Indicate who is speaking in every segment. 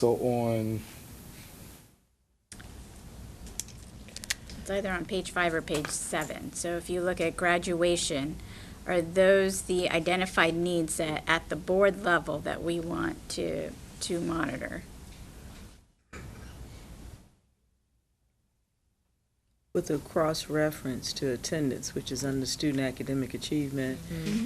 Speaker 1: So on,
Speaker 2: It's either on page five or page seven. So if you look at graduation, are those the identified needs that, at the board level, that we want to, to monitor?
Speaker 3: With a cross-reference to attendance, which is under student academic achievement,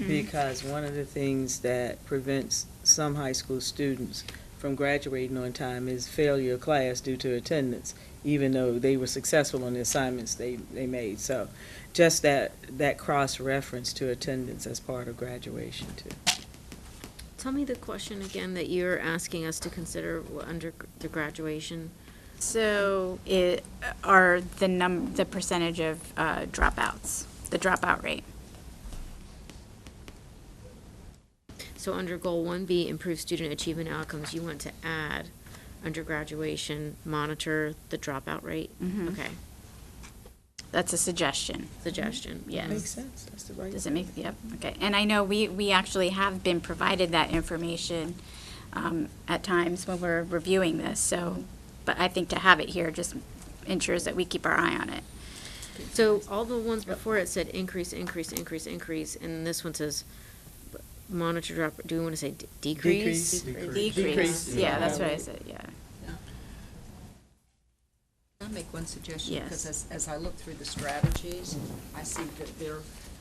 Speaker 3: because one of the things that prevents some high school students from graduating on time is failure of class due to attendance, even though they were successful on the assignments they, they made. So just that, that cross-reference to attendance as part of graduation too.
Speaker 4: Tell me the question again that you're asking us to consider w- under gr- the graduation.
Speaker 2: So it, are the num, the percentage of uh, dropouts, the dropout rate?
Speaker 4: So under goal one B, improve student achievement outcomes, you want to add under graduation, monitor the dropout rate? Okay,
Speaker 2: That's a suggestion.
Speaker 4: suggestion,
Speaker 2: Yes.
Speaker 3: Makes sense, that's the right.
Speaker 2: Does it make, yep, okay. And I know we, we actually have been provided that information um, at times when we're reviewing this, so, but I think to have it here just ensures that we keep our eye on it.
Speaker 4: So all the ones before it said increase, increase, increase, increase, and this one says b- monitor drop, do we want to say d- decrease?
Speaker 3: Decrease.
Speaker 2: Decrease,
Speaker 3: Decrease.
Speaker 2: yeah, that's what I said, yeah.
Speaker 5: I'll make one suggestion,
Speaker 2: Yes.
Speaker 5: because as, as I look through the strategies, I see that there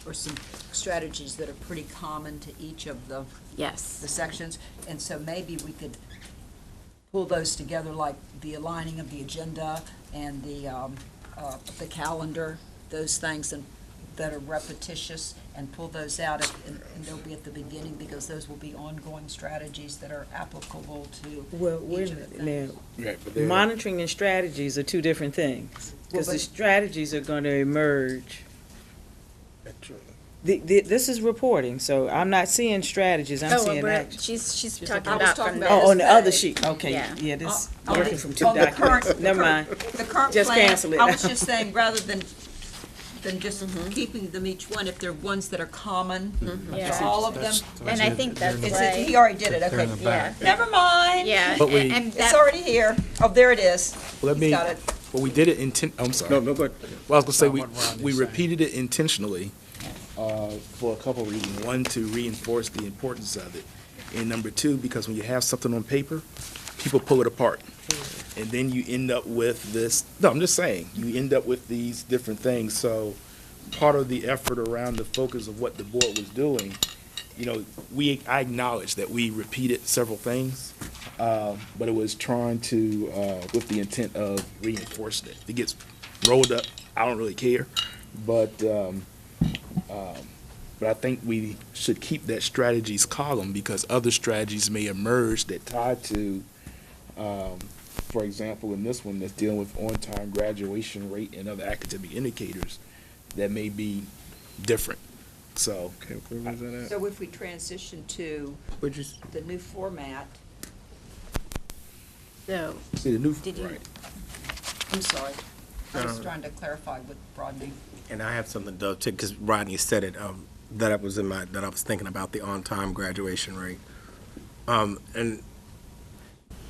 Speaker 5: are some strategies that are pretty common to each of the, the
Speaker 2: Yes,
Speaker 5: sections, and so maybe we could pull those together, like the aligning of the agenda and the, um, uh, the calendar, those things and, that are repetitious, and pull those out, at- and, and they'll be at the beginning, because those will be ongoing strategies that are applicable to
Speaker 3: Well, wait
Speaker 5: each
Speaker 3: a
Speaker 5: of the things.
Speaker 3: minute now,
Speaker 1: right, but there-
Speaker 3: Monitoring and strategies are two different things, because
Speaker 5: Well,
Speaker 3: the
Speaker 5: but-
Speaker 3: strategies are going to emerge. The, the, this is reporting, so I'm not seeing strategies, I'm
Speaker 2: Oh, well,
Speaker 3: seeing
Speaker 2: we're-
Speaker 3: action.
Speaker 2: she's, she's
Speaker 5: I
Speaker 2: talking
Speaker 5: was
Speaker 2: about
Speaker 5: talking
Speaker 2: from
Speaker 5: about
Speaker 2: the,
Speaker 3: Oh, on the
Speaker 5: this
Speaker 3: other
Speaker 5: page.
Speaker 3: sheet, okay,
Speaker 2: Yeah.
Speaker 3: yeah, this,
Speaker 5: Uh, Oh, On- on
Speaker 3: working
Speaker 5: the-
Speaker 3: from two
Speaker 5: on the
Speaker 3: documents,
Speaker 5: current-
Speaker 3: never mind.
Speaker 5: The current
Speaker 3: Just
Speaker 5: plan,
Speaker 3: cancel it. Mm-hmm.
Speaker 5: I was just saying, rather than, than just keeping them each one, if they're ones that are common
Speaker 2: Yeah.
Speaker 5: to all of them.
Speaker 2: and I think that's
Speaker 5: It's,
Speaker 2: why,
Speaker 5: he already did it,
Speaker 6: They're in the
Speaker 5: okay.
Speaker 6: back.
Speaker 5: Never mind.
Speaker 2: yeah,
Speaker 6: But we-
Speaker 2: and
Speaker 5: It's
Speaker 2: that,
Speaker 5: already here. Oh, there it is.
Speaker 6: Well,
Speaker 5: He's
Speaker 6: Let me,
Speaker 5: got it.
Speaker 6: well, we did it inten, I'm sorry.
Speaker 1: no, no, go ahead.
Speaker 6: Well, I was gonna say, we,
Speaker 7: Not what Ron
Speaker 6: we
Speaker 7: is saying.
Speaker 6: repeated it intentionally,
Speaker 1: Uh, for a couple reasons.
Speaker 6: one, to reinforce the importance of it. And number two, because when you have something on paper, people pull it apart. And then you end up with this, no, I'm just saying, you end up with these different things. So part of the effort around the focus of what the board was doing, you know, we, I acknowledge that we repeated several things, uh, but it was trying to, uh, with the intent of reinforcing it. It gets rolled up, I don't really care, but, um, but I think we should keep that strategies column because other strategies may emerge that tie to, um, for example, in this one that's dealing with on-time graduation rate and other academic indicators that may be different. So,
Speaker 1: Okay, where was that at?
Speaker 5: So if we transition to
Speaker 1: Would you,
Speaker 5: the new format,
Speaker 2: so,
Speaker 6: see the new,
Speaker 2: Did you-
Speaker 6: right.
Speaker 5: I'm sorry. I was
Speaker 7: No.
Speaker 5: trying to clarify with Rodney.
Speaker 7: And I have something to, because Rodney said it, um, that I was in my, that I was thinking about the on-time graduation rate. Um, and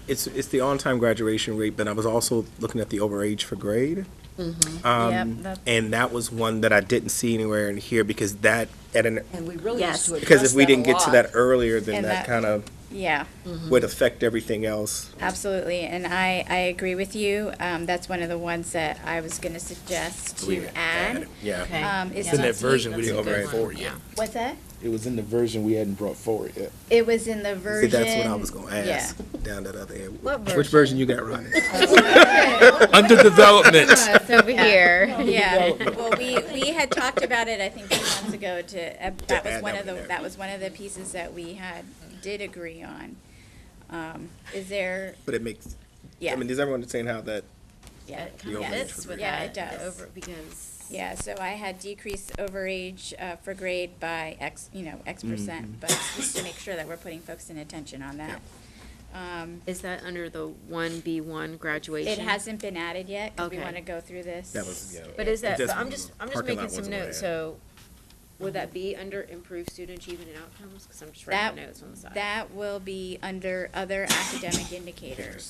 Speaker 7: it's, it's the on-time graduation rate, but I was also looking at the overage for grade.
Speaker 2: Mm-hmm. yep,
Speaker 7: Um,
Speaker 2: that's,
Speaker 7: And that was one that I didn't see anywhere in here because that, at an,
Speaker 5: And we really
Speaker 2: Yes.
Speaker 5: used to address
Speaker 7: because if we
Speaker 5: that a
Speaker 7: didn't get to
Speaker 5: lot.
Speaker 7: that earlier, then
Speaker 2: And
Speaker 7: that
Speaker 2: that- Mm-hmm.
Speaker 7: kind of
Speaker 2: yeah.
Speaker 7: would affect everything else.
Speaker 2: Absolutely, and I, I agree with you. Um, that's one of the ones that I was gonna suggest to add.
Speaker 7: Yeah.
Speaker 2: Um, is
Speaker 4: Yeah,
Speaker 6: In that
Speaker 4: that's a-
Speaker 6: version, we
Speaker 4: that's a
Speaker 6: didn't
Speaker 4: good
Speaker 6: bring
Speaker 4: one,
Speaker 6: forward yet.
Speaker 4: yeah.
Speaker 2: What's that?
Speaker 6: It was in the version we hadn't brought forward yet.
Speaker 2: It was in the
Speaker 7: See,
Speaker 2: version.
Speaker 7: that's what I was gonna ask,
Speaker 2: Yeah.
Speaker 7: down that other end.
Speaker 2: What
Speaker 7: Which version you got, Rodney?
Speaker 6: Under development.
Speaker 2: Over here, yeah. Well, we, we had talked about it, I think, two months ago to, uh, that was
Speaker 7: add
Speaker 2: one
Speaker 7: that
Speaker 2: of the,
Speaker 7: one there.
Speaker 2: that was one of the pieces that we had, did agree on. Um, is there,
Speaker 7: But it makes,
Speaker 2: yeah,
Speaker 7: I mean, does everyone understand how that
Speaker 2: yeah,
Speaker 7: kinda
Speaker 2: yeah,
Speaker 7: fits
Speaker 2: with yeah, it
Speaker 4: that,
Speaker 2: does.
Speaker 4: over- Because.
Speaker 2: Yeah, so I had decreased overage uh, for grade by X, you know, X percent,
Speaker 7: Mm-hmm.
Speaker 2: but just to make sure that we're putting folks in attention on that. Um,
Speaker 4: Is that under the one B one graduation?
Speaker 2: It hasn't been added yet, 'cause we
Speaker 4: Okay.
Speaker 2: want to go through this.
Speaker 7: That was, yeah.
Speaker 4: But is that,
Speaker 7: That's
Speaker 4: so I'm
Speaker 7: one
Speaker 4: just,
Speaker 7: of the
Speaker 4: I'm just
Speaker 7: parking lot
Speaker 4: making some
Speaker 7: ones I
Speaker 4: notes,
Speaker 7: had.
Speaker 4: so would that be under improved student achievement and outcomes? Because I'm just
Speaker 2: That-
Speaker 4: writing notes on the side.
Speaker 2: That will be under other academic indicators.